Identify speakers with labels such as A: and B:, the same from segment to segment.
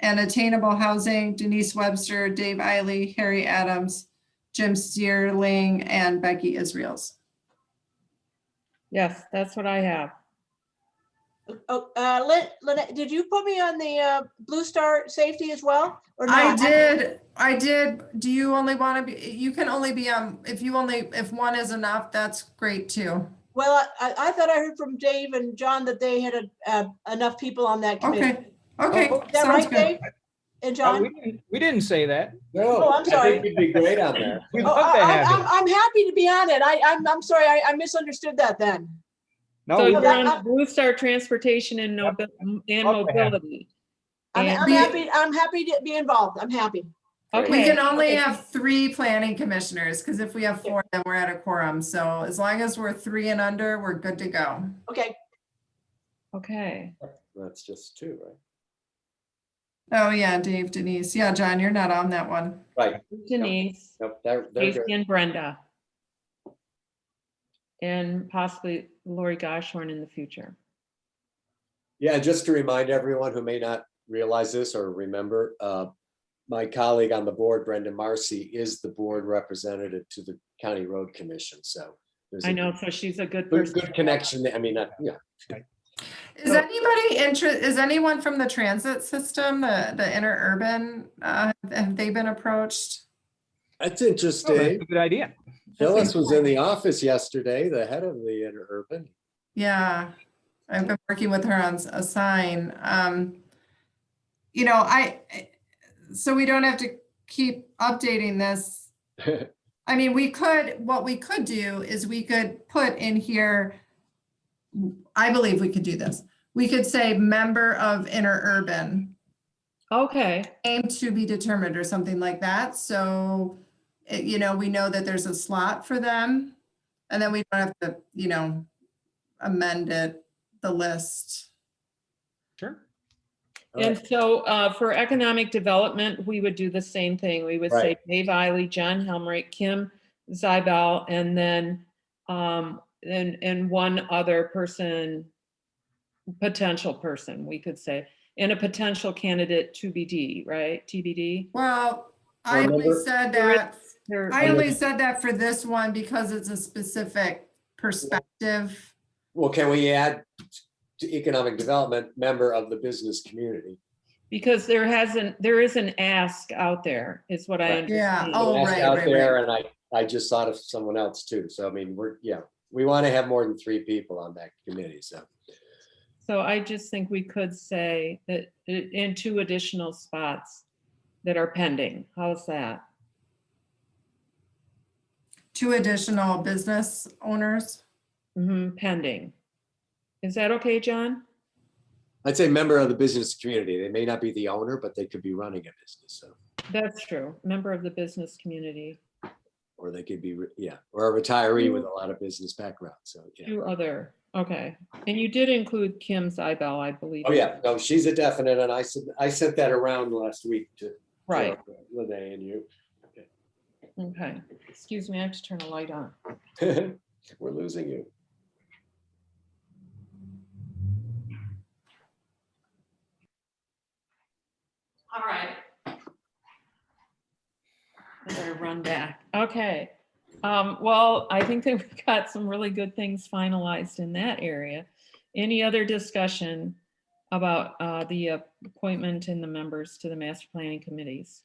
A: and attainable housing, Denise Webster, Dave Eiley, Harry Adams, Jim Steerling, and Becky Israels.
B: Yes, that's what I have.
C: Oh, uh, Lynn, Lynette, did you put me on the, uh, Blue Star Safety as well? or
A: I
C: not?
A: did, I did. Do you only want to be, you can only be on, if you only, if one is enough, that's great too.
C: Well, I, I thought I heard from Dave and John that they had, uh, enough people on that committee.
A: Okay, okay,
C: Oh, Is that
A: sounds
C: right,
A: good.
C: Dave? And
D: Oh,
C: John?
D: We didn't- we didn't say that.
C: Oh,
E: No,
C: I'm
E: I
C: sorry.
E: think you'd be great on there.
D: We'd
C: Oh,
D: love to
C: I- I-
D: have
C: I'm,
D: you.
C: I'm happy to be on it. I, I'm, I'm sorry, I, I misunderstood that then.
E: Oh,
D: No,
B: So
D: we-
B: you're
C: that-
B: on Blue Star Transportation and
D: Yep.
B: Nobi- and
D: Love to have
B: Mobility.
C: I'm,
B: And-
C: I'm happy, I'm happy to be involved. I'm happy.
A: We
B: Okay,
A: can only have three planning commissioners, because if we have four, then we're at a quorum. So as long as we're three and under, we're good to go.
C: Okay,
B: okay.
E: That's just two,
A: Oh, yeah, Dave, Denise. Yeah, John, you're not on that one.
E: right? Right.
B: Denise,
E: Nope, they're, they're
B: Casey
E: good.
B: and Brenda. And possibly Lori Goshorn in the future.
E: Yeah, just to remind everyone who may not realize this or remember, uh, my colleague on the board, Brendan Marcy, is the board representative to the County Road Commission, so. there's a
B: I know, so she's a good
E: Good
B: person.
E: good connection, I mean, uh, yeah,
A: Is anybody interest, is anyone from the transit system, the, the interurban, uh, have they been approached?
E: that's
D: Oh, that's a
E: interesting.
D: good idea.
E: Phyllis was in the office yesterday, the head of the interurban.
A: Yeah, I've been working with her on s- a sign. Um, you know, I, so we don't have to keep updating this. I mean, we could, what we could do is we could put in here, I believe we could do this. We could say member of interurban,
B: Okay,
A: aim to be determined or something like that. So, it- you know, we know that there's a slot for them. And then we don't have to, you know, amend it, the list.
D: Sure.
E: All
B: and
E: right.
B: so uh, for economic development, we would do the same thing. We would say Dave Eiley, John Helmrich, Kim Zibel, and then, um, and, and one other person, potential person, we could say, and a potential candidate to BD, right? TBD?
A: Well, I only
E: Remember-
A: said
B: There is-
A: that,
B: There-
A: I only said that for this one because it's a specific perspective.
E: Well, can we add to economic development, member of the business community?
B: Because there hasn't, there is an ask out there, is what I
E: Right.
B: understand.
A: Yeah, oh.
E: That's
A: right,
E: out
A: right,
E: there, and I, I just thought of someone else too, so I mean, we're, yeah, we want to have more than three people on that committee, so.
B: So I just think we could say that i- in two additional spots that are pending. How's that?
A: Two additional business owners.
B: Mhm, Pending. Is that okay, John?
E: I'd say member of the business community, they may not be the owner, but they could be running a business, so,
B: That's true. Member of the business community,
E: or they could be, re- yeah, or a retiree with a lot of business background, so, yeah.
B: two other, okay. And you did include Kim Zibel, I believe.
E: Oh, yeah, no, she's a definite, and I said, I sent that around last week to. to
B: Right,
E: Renee and you,
B: okay. Excuse me, I have to turn a light on.
E: we're losing you.
B: All right. I better run back. Okay. Um, well, I think that we've got some really good things finalized in that area. Any other discussion about, uh, the appointment and the members to the master planning committees?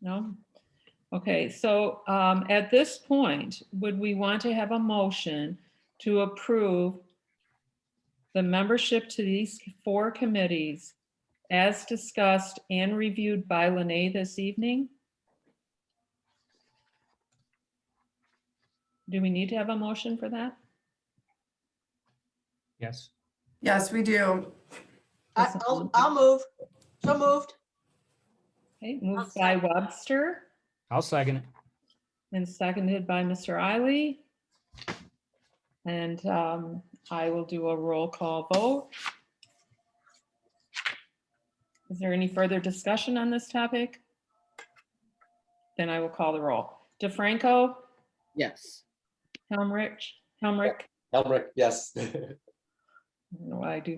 B: No? Okay, so, um, at this point, would we want to have a motion to approve the membership to these four committees as discussed and reviewed by Lene this evening? Do we need to have a motion for that?
D: Yes.
A: Yes, we do.
C: I, I'll, I'll move. So moved.
B: Okay, moved by Webster
D: I'll second it.
B: and seconded by Mr. Eiley. And um, I will do a roll call vote. Is there any further discussion on this topic? Then I will call the roll. DeFranco?
F: Yes.
B: Helmrich, Helmrich,
E: Helmrich, yes.
B: I don't know why I do